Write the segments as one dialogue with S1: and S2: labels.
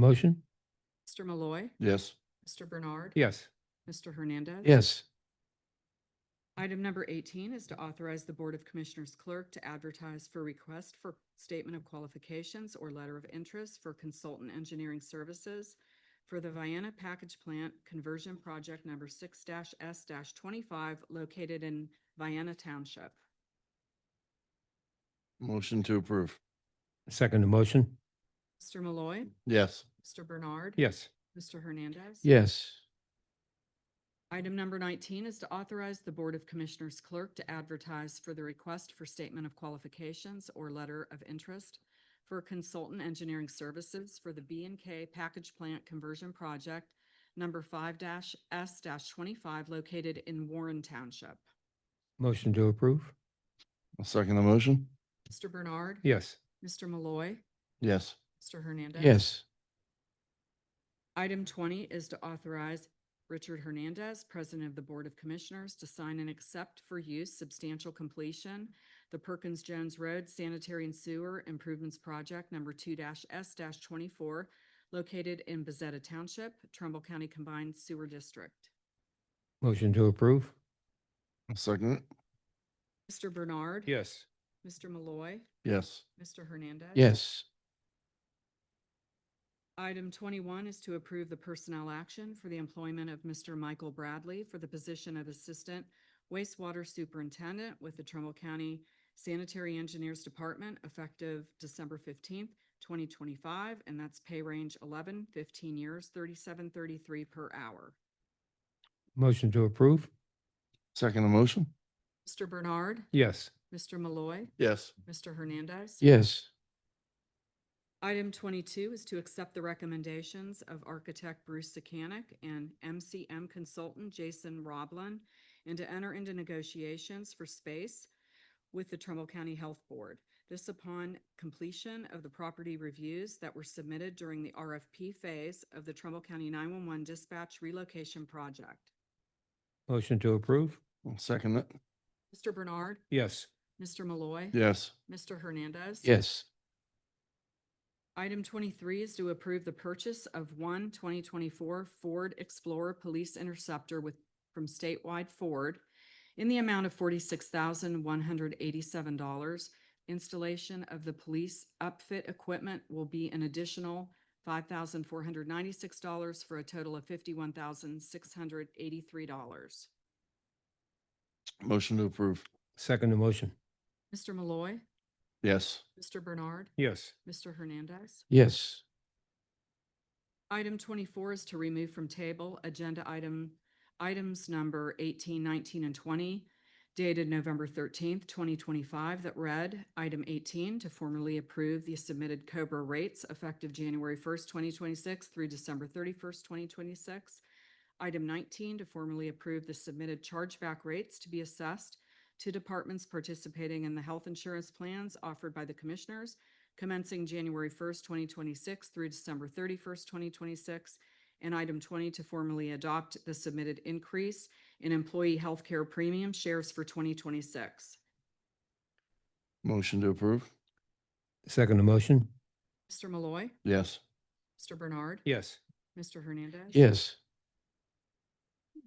S1: Motion?
S2: Mr. Malloy.
S3: Yes.
S2: Mr. Bernard.
S1: Yes.
S2: Mr. Hernandez.
S1: Yes.
S2: Item number 18 is to authorize the Board of Commissioners clerk to advertise for request for statement of qualifications or letter of interest for consultant engineering services for the Vienna Package Plant Conversion Project Number 6-S-25 located in Vienna Township.
S3: Motion to approve.
S1: Second the motion?
S2: Mr. Malloy.
S3: Yes.
S2: Mr. Bernard.
S1: Yes.
S2: Mr. Hernandez.
S1: Yes.
S2: Item number 19 is to authorize the Board of Commissioners clerk to advertise for the request for statement of qualifications or letter of interest for consultant engineering services for the B and K Package Plant Conversion Project number 5-S-25 located in Warren Township.
S1: Motion to approve?
S3: I'll second the motion.
S2: Mr. Bernard.
S1: Yes.
S2: Mr. Malloy.
S3: Yes.
S2: Mr. Hernandez.
S1: Yes.
S2: Item twenty is to authorize Richard Hernandez, President of the Board of Commissioners, to sign and accept for use substantial completion the Perkins Jones Road Sanitary and Sewer Improvements Project number two S twenty-four located in Bezetta Township, Trumbull County Combined Sewer District.
S1: Motion to approve?
S3: I'll second it.
S2: Mr. Bernard.
S1: Yes.
S2: Mr. Malloy.
S3: Yes.
S2: Mr. Hernandez.
S1: Yes.
S2: Item twenty-one is to approve the personnel action for the employment of Mr. Michael Bradley for the position of Assistant Wastewater Superintendent with the Trumbull County Sanitary Engineers Department effective December fifteenth, twenty twenty-five, and that's pay range 11, 15 years, thirty-seven thirty-three per hour.
S1: Motion to approve?
S3: Second the motion.
S2: Mr. Bernard,
S1: Yes.
S2: Mr. Malloy,
S3: Yes.
S2: Mr. Hernandez.
S1: Yes.
S2: Item twenty-two is to accept the recommendations of architect Bruce Sakanik and MCM consultant Jason Roblin and to enter into negotiations for space with the Trumbull County Health Board. This upon completion of the property reviews that were submitted during the RFP phase of the Trumbull County nine-one-one dispatch relocation project.
S1: Motion to approve?
S3: I'll second it.
S2: Mr. Bernard,
S1: Yes.
S2: Mr. Malloy.
S3: Yes.
S2: Mr. Hernandez.
S1: Yes.
S2: Item twenty-three is to approve the purchase of one 2024 Ford Explorer Police Interceptor with, from statewide Ford in the amount of forty-six thousand, one hundred eighty-seven dollars. Installation of the police upfit equipment will be an additional five thousand, four hundred ninety-six dollars for a total of fifty-one thousand, six hundred eighty-three dollars.
S3: Motion to approve.
S1: Second the motion?
S2: Mr. Malloy,
S3: Yes.
S2: Mr. Bernard,
S1: Yes.
S2: Mr. Hernandez.
S1: Yes.
S2: Item twenty-four is to remove from table agenda item, items number 18, 19, and twenty dated November thirteenth, twenty twenty-five that read, item eighteen, to formally approve the submitted Cobra rates effective January first, twenty twenty-six through December thirty-first, twenty twenty-six. Item nineteen, to formally approve the submitted chargeback rates to be assessed to departments participating in the health insurance plans offered by the commissioners commencing January first, twenty twenty-six through December thirty-first, twenty twenty-six. And item twenty, to formally adopt the submitted increase in employee healthcare premium shares for twenty twenty-six.
S3: Motion to approve.
S1: Second the motion?
S2: Mr. Malloy,
S3: Yes.
S2: Mr. Bernard,
S1: Yes.
S2: Mr. Hernandez.
S1: Yes.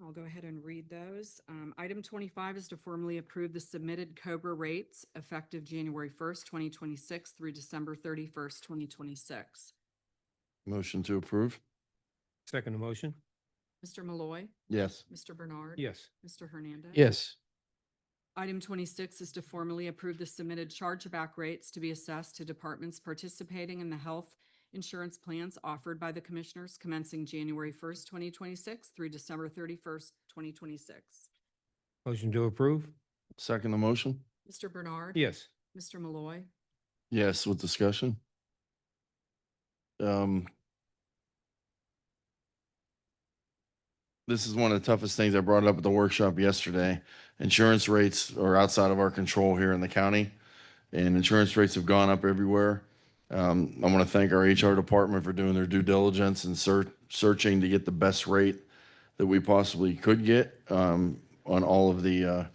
S2: I'll go ahead and read those. Um, item twenty-five is to formally approve the submitted Cobra rates effective January first, twenty twenty-six through December thirty-first, twenty twenty-six.
S3: Motion to approve.
S1: Second the motion?
S2: Mr. Malloy,
S3: Yes.
S2: Mr. Bernard.
S1: Yes.
S2: Mr. Hernandez.
S1: Yes.
S2: Item twenty-six is to formally approve the submitted chargeback rates to be assessed to departments participating in the health insurance plans offered by the commissioners commencing January first, twenty twenty-six through December thirty-first, twenty twenty-six.
S1: Motion to approve?
S3: Second the motion.
S2: Mr. Bernard.
S1: Yes.
S2: Mr. Malloy.
S3: Yes, with discussion. Um. This is one of the toughest things I brought up at the workshop yesterday. Insurance rates are outside of our control here in the county. And insurance rates have gone up everywhere. Um, I want to thank our HR department for doing their due diligence and search, searching to get the best rate that we possibly could get, um, on all of the, uh,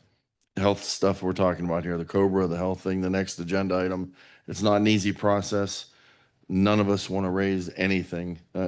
S3: health stuff we're talking about here, the Cobra, the health thing, the next agenda item. It's not an easy process. none of us want to raise anything. Uh,